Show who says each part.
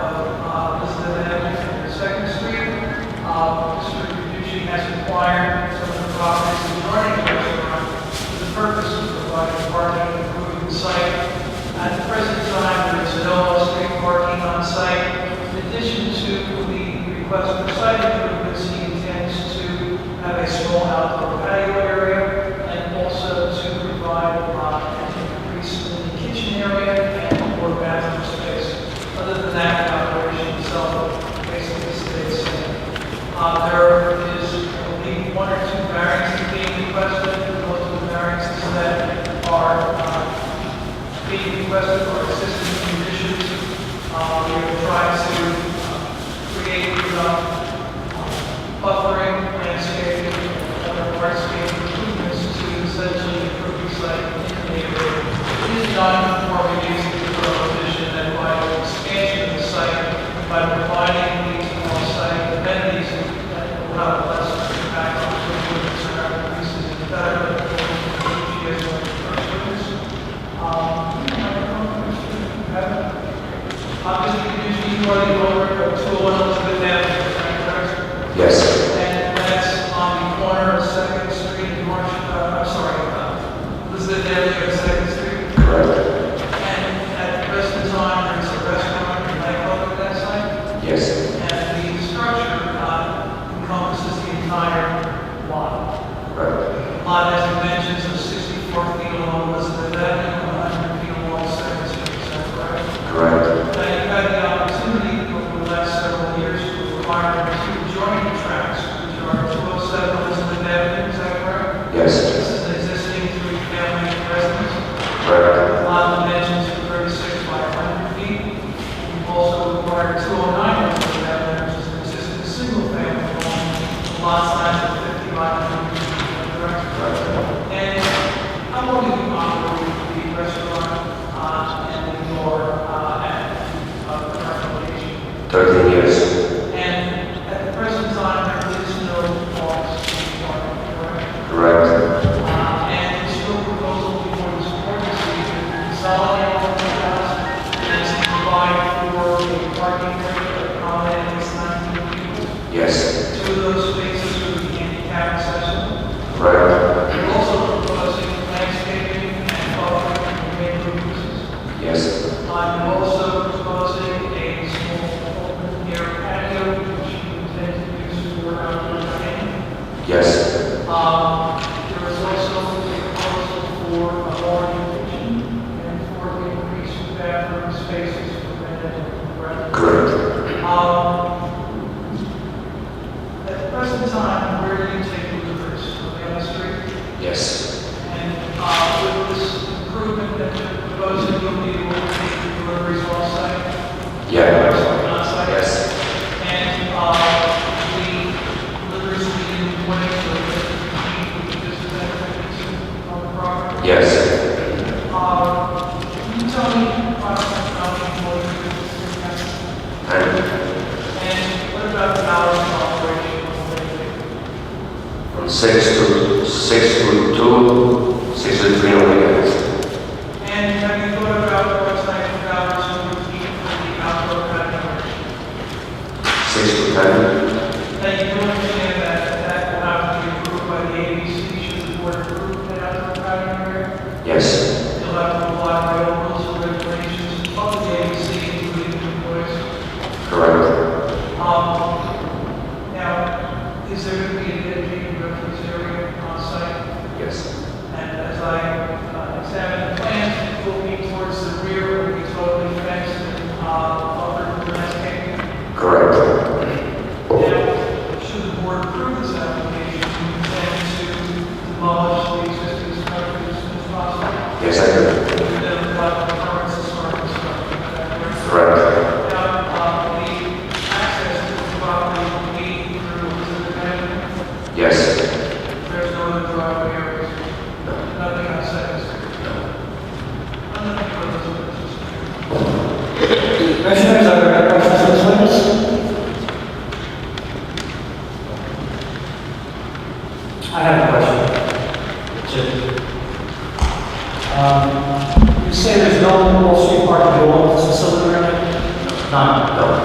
Speaker 1: uh, request for site improvements, he intends to have a small outdoor patio area and also to provide uh, an increase in the kitchen area and more bathroom space. Other than that, the operation itself basically stays the same. Uh, There is, I believe, one or two variances being requested, most of the variances that are uh, being requested for existing conditions. Uh, We are trying to uh, create uh, buffering, landscaping, and other hardscape improvements to essentially improve the site in the neighborhood. It is non-conforming use of the prohibition that by expansion of the site, by providing these on-site amenities that will have less impact on the improvements and our increases in better, as well um, Obviously, you are the owner of 201 Elizabeth Avenue, correct?
Speaker 2: Yes.
Speaker 1: And that's on the corner of Second Street and Marsh, uh, I'm sorry, uh, Elizabeth Avenue and Second Street.
Speaker 2: Correct.
Speaker 1: And at the present time, there's a restaurant and nightclub at that site.
Speaker 2: Yes.
Speaker 1: And the structure uh, encompasses the entire lot.
Speaker 2: Correct.
Speaker 1: Lot has dimensions of 64 feet along Elizabeth Avenue, 100 feet along Second Street, is that correct?
Speaker 2: Correct.
Speaker 1: Now, you've had the opportunity over the last several years to acquire two joining tracks, which are 207 Elizabeth Avenue, is that correct?
Speaker 2: Yes.
Speaker 1: This is an existing three-family residence.
Speaker 2: Correct.
Speaker 1: Lot dimensions of 36 by 100 feet. You've also acquired 209 Elizabeth Avenue, which is an existing single-family home, lot size of 50 by 100 feet, is that correct?
Speaker 2: Correct.
Speaker 1: And how long have you operated the restaurant uh, and your uh, at, uh, current location?
Speaker 2: Thirteen years.
Speaker 1: And at the present time, there is no laws required, correct?
Speaker 2: Correct.
Speaker 1: Uh, And it's your proposal before this board is to consolidate all of the house and to provide for a parking area accommodating its 19 people.
Speaker 2: Yes.
Speaker 1: Two of those spaces would be handicap accessible.
Speaker 2: Correct.
Speaker 1: You're also proposing landscaping and buffering and green roofs.
Speaker 2: Yes.
Speaker 1: I'm also proposing a small open air patio, which you intend to use for outdoor dining.
Speaker 2: Yes.
Speaker 1: Um, There is also a proposal for a large kitchen and for the increase in bathroom spaces for men and women.
Speaker 2: Correct.
Speaker 1: Um, At the present time, where do you take deliveries? On the street?
Speaker 2: Yes.
Speaker 1: And uh, with this improvement that you're proposing, you'll be able to make the deliveries off-site?
Speaker 2: Yeah.
Speaker 1: On-site?
Speaker 2: Yes.
Speaker 1: And uh, the deliveries will be in one of the, this is that, on the property?
Speaker 2: Yes.
Speaker 1: Uh, Can you tell me approximately how many employees you
Speaker 2: And
Speaker 1: have? And what about the hours of operation of the building?
Speaker 2: from six to six to two, six to three on weekends.
Speaker 1: And have you thought about what type of hours you would need for the outdoor patio?
Speaker 2: Six to
Speaker 1: Um, uh,
Speaker 2: ten.
Speaker 1: uh, uh,